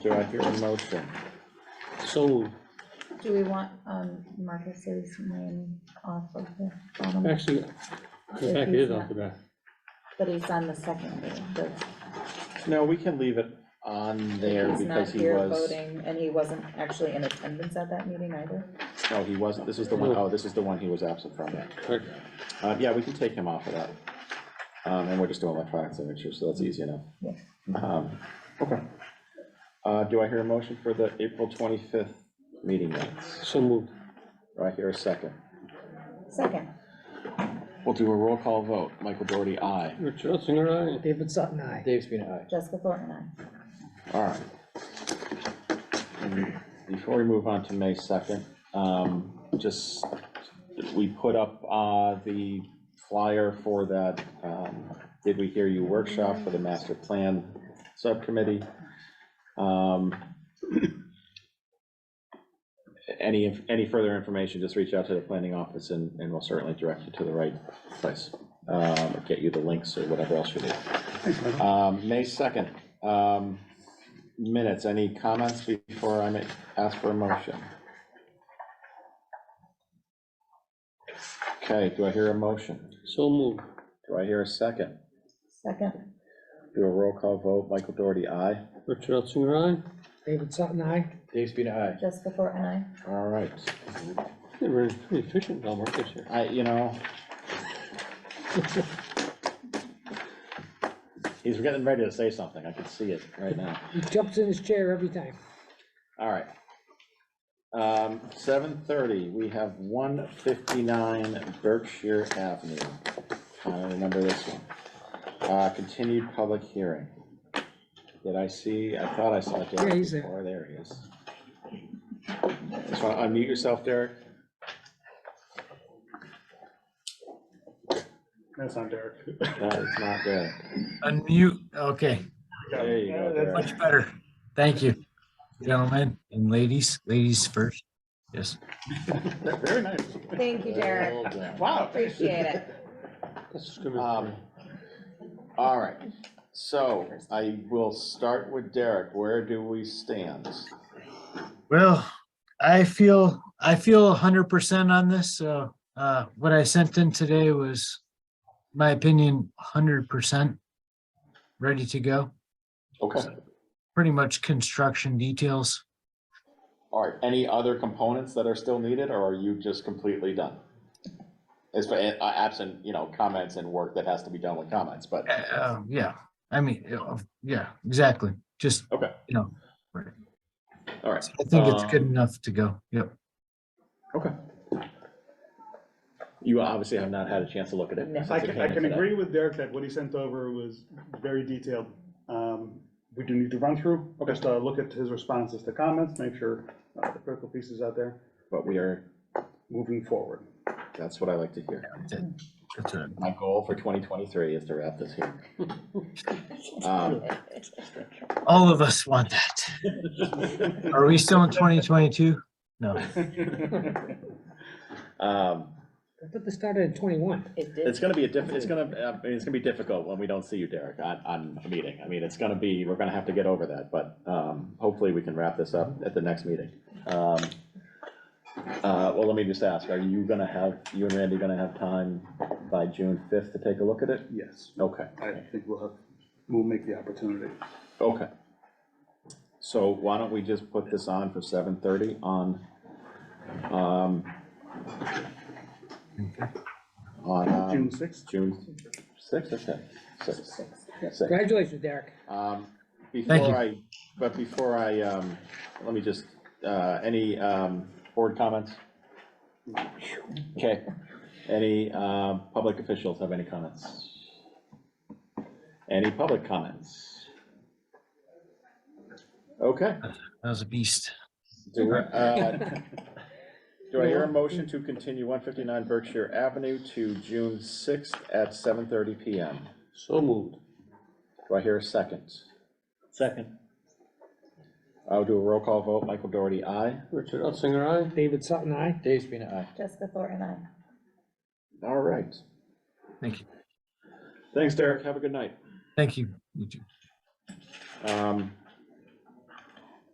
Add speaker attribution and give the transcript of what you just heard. Speaker 1: Do I hear a motion?
Speaker 2: So moved.
Speaker 3: Do we want um, Marcus's name off of the bottom?
Speaker 2: Actually, the fact is off the bat.
Speaker 3: But he's on the second page, but
Speaker 1: No, we can leave it on there
Speaker 3: he's not
Speaker 1: because he
Speaker 3: here
Speaker 1: was,
Speaker 3: voting, and he wasn't actually in attendance at that meeting either.
Speaker 1: no, he wasn't, this is the one,
Speaker 2: No.
Speaker 1: oh, this is the one he was absent from.
Speaker 2: Correct.
Speaker 1: Uh, yeah, we can take him off of that. Um, and we're just doing electronic signature, so that's easy enough.
Speaker 3: Yeah.
Speaker 1: Um, okay. Uh, do I hear a motion for the April twenty-fifth meeting minutes?
Speaker 2: So moved.
Speaker 1: Do I hear a second?
Speaker 3: Second,
Speaker 1: We'll do a roll call vote. Michael Doherty, aye.
Speaker 2: Richard Ottinger, aye.
Speaker 4: David Sutton, aye.
Speaker 5: Dave Spina, aye.
Speaker 3: Jessica Thornton, aye.
Speaker 1: All right. And Before we move on to May 2nd, um, just, we put up uh, the flyer for that, um, Did We Hear You workshop for the master plan subcommittee. Um, Any, any further information, just reach out to the planning office and, and we'll certainly direct you to the right place. um, or Get you the links or whatever else you need. Um, May 2nd, um, minutes, any comments before I make, ask for a motion? Okay, do I hear a motion?
Speaker 2: So moved.
Speaker 1: Do I hear a second?
Speaker 3: Second,
Speaker 1: Do a roll call vote, Michael Doherty, aye?
Speaker 2: Richard Ottinger,
Speaker 4: David Sutton, aye.
Speaker 5: Dave Spina, aye.
Speaker 3: Jessica Thornton, aye.
Speaker 1: All right,
Speaker 2: aye. They were pretty efficient, Al Marcus here.
Speaker 1: I, you know. He's getting ready to say something, I can see it right now.
Speaker 4: He jumps in his chair every time.
Speaker 1: All right. Um, seven thirty, we have one fifty-nine Berkshire Avenue. I remember this one. Uh, continued public hearing. Did I see, I thought I saw
Speaker 4: Yeah,
Speaker 1: Derek
Speaker 4: he's there.
Speaker 1: before, there he is. Just want to unmute yourself, Derek.
Speaker 6: That's not Derek.
Speaker 1: That is not Derek.
Speaker 7: Unmute, okay,
Speaker 1: There you go,
Speaker 6: Yeah,
Speaker 1: Derek.
Speaker 7: much better. Thank you, gentlemen and ladies, ladies first. Yes,
Speaker 6: that's- Very nice.
Speaker 3: Thank you, Derek.
Speaker 1: Well done.
Speaker 6: Wow.
Speaker 3: Appreciate it.
Speaker 2: That's discriminatory.
Speaker 1: Um, All right, so I will start with Derek. Where do we stand?
Speaker 7: well, I feel, I feel hundred percent on this, so, uh, what I sent in today was, my opinion, hundred percent ready to go,
Speaker 1: Okay.
Speaker 7: pretty much construction details.
Speaker 1: All right, any other components that are still needed, or are you just completely done? As for, uh, absent, you know, comments and work that has to be done with comments, but,
Speaker 7: Uh, uh, yeah, I mean, uh, yeah, exactly, just,
Speaker 1: Okay.
Speaker 7: you know,
Speaker 1: all right.
Speaker 7: I think it's good enough to go, yep.
Speaker 1: Okay. You obviously have not had a chance to look at it. since
Speaker 6: I
Speaker 1: it
Speaker 6: can,
Speaker 1: came
Speaker 6: I
Speaker 1: in
Speaker 6: can
Speaker 1: today.
Speaker 6: agree with Derek that what he sent over was very detailed. Um, We do need to run through, just uh, look at his responses to comments, make sure uh, the critical pieces out there,
Speaker 1: But we are,
Speaker 6: moving forward.
Speaker 1: that's what I like to hear.
Speaker 7: That's it. That's it.
Speaker 1: My goal for twenty twenty-three is to wrap this here. Um,
Speaker 7: All of us want that. Are we still in twenty twenty-two? No,
Speaker 1: um,
Speaker 4: I thought this started at twenty-one.
Speaker 3: It
Speaker 1: It's
Speaker 3: did.
Speaker 1: gonna be a diff, it's gonna, uh, I mean, it's gonna be difficult when we don't see you, Derek, on, on a meeting. I mean, it's gonna be, we're gonna have to get over that, but, um, hopefully we can wrap this up at the next meeting. Um, uh, well, let me just ask, are you gonna have, you and Randy gonna have time by June fifth to take a look at it?
Speaker 6: Yes,
Speaker 1: Okay,
Speaker 6: I think we'll have, we'll make the opportunity.
Speaker 1: okay. So why don't we just put this on for seven thirty on, um, on,
Speaker 6: June
Speaker 1: um,
Speaker 6: 6th?
Speaker 1: June sixth, okay, sixth, sixth.
Speaker 4: Congratulations, Derek.
Speaker 1: Um,
Speaker 7: Thank
Speaker 1: Before I, but before I, um, let me just, uh, any um, board comments? Okay, any um, public officials have any comments? Any public comments? Okay,
Speaker 7: that was a beast.
Speaker 1: do, uh, do I hear a motion to continue 159 Berkshire Avenue to June 6th at 7:30 PM?
Speaker 2: So moved.
Speaker 1: Do I hear a second?
Speaker 2: Second.
Speaker 1: I'll do a roll call vote, Michael Doherty, aye.
Speaker 2: Richard Ottinger, aye.
Speaker 4: David Sutton, aye.
Speaker 5: Dave Spina, aye.
Speaker 3: Jessica Thornton, aye.
Speaker 1: All right.
Speaker 7: Thank you,
Speaker 1: Thanks, Derek. Have a good night.
Speaker 7: thank you. You too.
Speaker 1: Um,